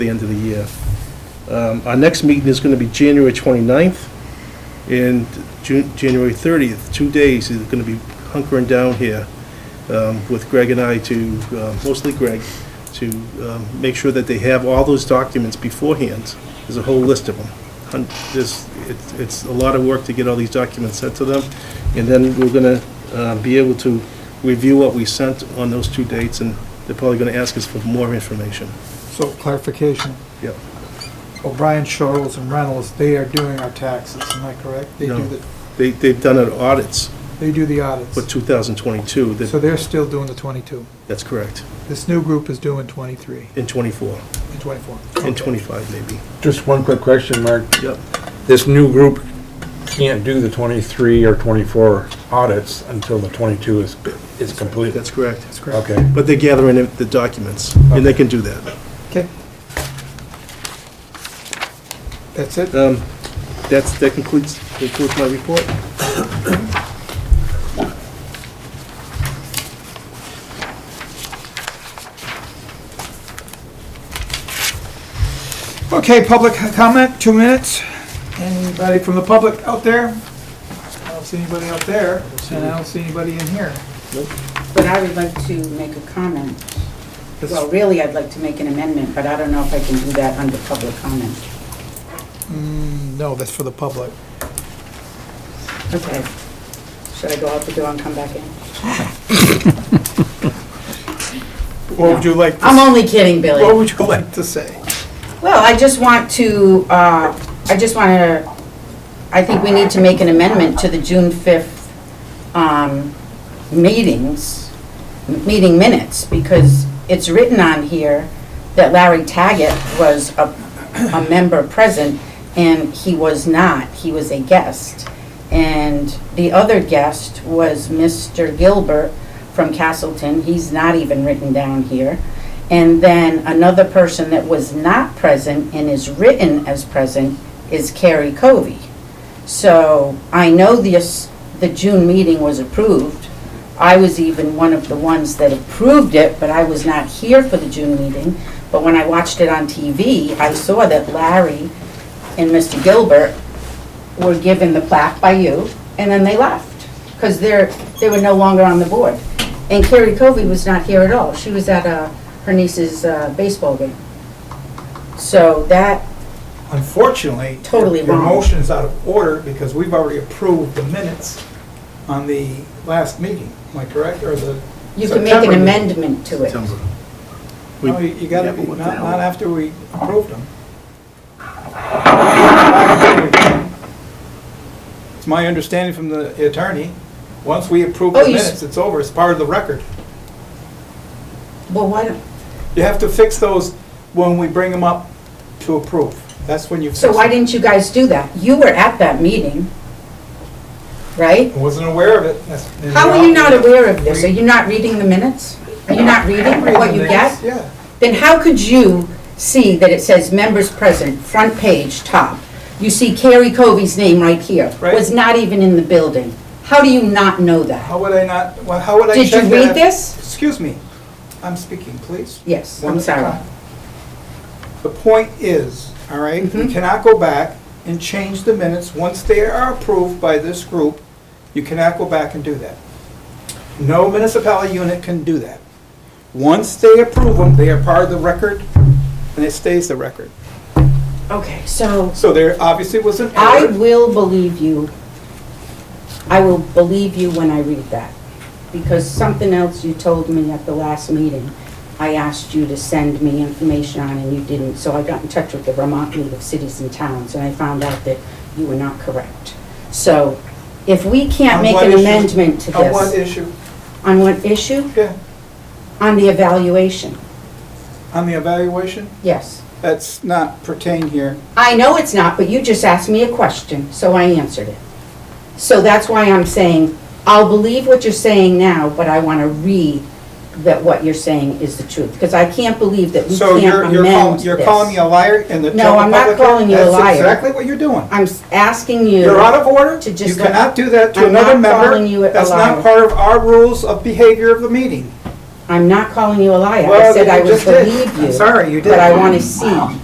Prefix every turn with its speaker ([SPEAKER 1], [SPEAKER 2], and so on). [SPEAKER 1] the end of the year. Um, Our next meeting is going to be January 29th and Ju- January 30th, two days, is going to be hunkering down here um, with Greg and I to, uh, mostly Greg, to um, make sure that they have all those documents beforehand. There's a whole list of them. Hun- There's, it's- it's a lot of work to get all these documents sent to them, and then we're going to be able to review what we sent on those two dates, and they're probably going to ask us for more information.
[SPEAKER 2] So clarification,
[SPEAKER 1] Yep.
[SPEAKER 2] O'Brien, Shorels, and Reynolds, they are doing our taxes, am I correct? They
[SPEAKER 1] No.
[SPEAKER 2] do the,
[SPEAKER 1] They, they've done it audits
[SPEAKER 2] they do the
[SPEAKER 1] for
[SPEAKER 2] audits.
[SPEAKER 1] 2022,
[SPEAKER 2] So
[SPEAKER 1] that,
[SPEAKER 2] they're still doing the 22.
[SPEAKER 1] that's correct,
[SPEAKER 2] This new group is doing 23
[SPEAKER 1] in 24,
[SPEAKER 2] and 24.
[SPEAKER 1] in
[SPEAKER 2] Okay.
[SPEAKER 1] 25 maybe.
[SPEAKER 3] Just one quick question, Mark.
[SPEAKER 1] Yep.
[SPEAKER 3] This new group can't do the 23 or 24 audits until the 22 is, is completed.
[SPEAKER 1] That's correct.
[SPEAKER 2] That's correct.
[SPEAKER 3] Okay.
[SPEAKER 1] But they're gathering the- the documents, and they can do that.
[SPEAKER 2] Okay. That's it?
[SPEAKER 1] Um, That's, that concludes, concludes my report.
[SPEAKER 2] Okay, public comment, two minutes. Anybody from the public out there? I don't see anybody out there, and I don't see anybody in here.
[SPEAKER 4] But I would like to make a comment.
[SPEAKER 2] That's-
[SPEAKER 4] Well, really, I'd like to make an amendment, but I don't know if I can do that under public comment.
[SPEAKER 2] Mm, No, that's for the public.
[SPEAKER 4] Okay. Should I go out the door and come back in?
[SPEAKER 2] What would you like, to-
[SPEAKER 4] I'm only kidding, Billy.
[SPEAKER 2] what would you like to say?
[SPEAKER 4] Well, I just want to, uh, I just want to, I think we need to make an amendment to the June 5th um, meetings, m- meeting minutes, because it's written on here that Larry Taggett was a, a member present, and he was not, he was a guest. And the other guest was Mr. Gilbert from Castleton, he's not even written down here. And then another person that was not present and is written as present is Carrie Covey. So I know this, the June meeting was approved. I was even one of the ones that approved it, but I was not here for the June meeting. But when I watched it on TV, I saw that Larry and Mr. Gilbert were given the plaque by you, and then they left, because they're, they were no longer on the board. And Carrie Covey was not here at all. She was at uh, her niece's uh, baseball game. So that,
[SPEAKER 2] Unfortunately.
[SPEAKER 4] Totally
[SPEAKER 2] Your
[SPEAKER 4] wrong.
[SPEAKER 2] motion is out of order because we've already approved the minutes on the last meeting, am I correct, or the?
[SPEAKER 4] you can make
[SPEAKER 2] September
[SPEAKER 4] an
[SPEAKER 2] meeting.
[SPEAKER 4] amendment to it.
[SPEAKER 1] September.
[SPEAKER 2] No, you you gotta, be- not, not after we approved them. It's my understanding from the attorney, once we approve
[SPEAKER 4] Oh,
[SPEAKER 2] the
[SPEAKER 4] you s-
[SPEAKER 2] minutes, it's over, it's part of the record.
[SPEAKER 4] Well, why don't,
[SPEAKER 2] You have to fix those when we bring them up to approve, that's when you fix
[SPEAKER 4] so
[SPEAKER 2] them.
[SPEAKER 4] why didn't you guys do that? You were at that meeting, right?
[SPEAKER 2] I Wasn't aware of it. That's- and
[SPEAKER 4] How are
[SPEAKER 2] we-
[SPEAKER 4] you not aware of this? Are you not reading the minutes? Are you not reading what you get?
[SPEAKER 2] Yeah.
[SPEAKER 4] Then how could you see that it says members present, front page, top? You see Carrie Covey's name right here.
[SPEAKER 2] Right.
[SPEAKER 4] Was not even in the building. How do you not know that?
[SPEAKER 2] How would I not, well, how would I
[SPEAKER 4] Did
[SPEAKER 2] check
[SPEAKER 4] you
[SPEAKER 2] that?
[SPEAKER 4] read this?
[SPEAKER 2] Excuse me, I'm speaking, please.
[SPEAKER 4] Yes,
[SPEAKER 2] One
[SPEAKER 4] I'm
[SPEAKER 2] at a
[SPEAKER 4] sorry.
[SPEAKER 2] time. The point is, all right, you
[SPEAKER 4] Mhm.
[SPEAKER 2] cannot go back and change the minutes. Once they are approved by this group, you cannot go back and do that. No municipality unit can do that. Once they approve them, they are part of the record, and it stays the record.
[SPEAKER 4] Okay, so
[SPEAKER 2] So there obviously was an
[SPEAKER 4] I
[SPEAKER 2] error.
[SPEAKER 4] will believe you. I will believe you when I read that. Because something else you told me at the last meeting, I asked you to send me information on and you didn't. So I got in touch with the Vermont League of Cities and Towns and I found out that you were not correct. So if we can't
[SPEAKER 2] On
[SPEAKER 4] make
[SPEAKER 2] what
[SPEAKER 4] an
[SPEAKER 2] issue?
[SPEAKER 4] amendment to
[SPEAKER 2] On one
[SPEAKER 4] this,
[SPEAKER 2] issue,
[SPEAKER 4] on what issue?
[SPEAKER 2] yeah,
[SPEAKER 4] On the evaluation,
[SPEAKER 2] on the evaluation,
[SPEAKER 4] yes.
[SPEAKER 2] that's not pertain here.
[SPEAKER 4] I know it's not, but you just asked me a question, so I answered it. So that's why I'm saying, I'll believe what you're saying now, but I want to read that what you're saying is the truth, because I can't believe that we
[SPEAKER 2] So you're,
[SPEAKER 4] can't
[SPEAKER 2] you're
[SPEAKER 4] amend
[SPEAKER 2] calling,
[SPEAKER 4] this.
[SPEAKER 2] you're calling me a liar and the.
[SPEAKER 4] No,
[SPEAKER 2] total
[SPEAKER 4] I'm not
[SPEAKER 2] public-
[SPEAKER 4] calling you a liar.
[SPEAKER 2] That's exactly what you're doing.
[SPEAKER 4] I'm s- asking you.
[SPEAKER 2] You're out of order.
[SPEAKER 4] to
[SPEAKER 2] You
[SPEAKER 4] just let-
[SPEAKER 2] cannot do that to
[SPEAKER 4] I'm not
[SPEAKER 2] another member.
[SPEAKER 4] calling you a
[SPEAKER 2] That's not
[SPEAKER 4] liar.
[SPEAKER 2] part of our rules of behavior of the meeting.
[SPEAKER 4] I'm not calling you a liar. I
[SPEAKER 2] Well,
[SPEAKER 4] said I
[SPEAKER 2] you
[SPEAKER 4] would
[SPEAKER 2] just did.
[SPEAKER 4] believe you.
[SPEAKER 2] I'm sorry, you did.
[SPEAKER 4] But I want to see.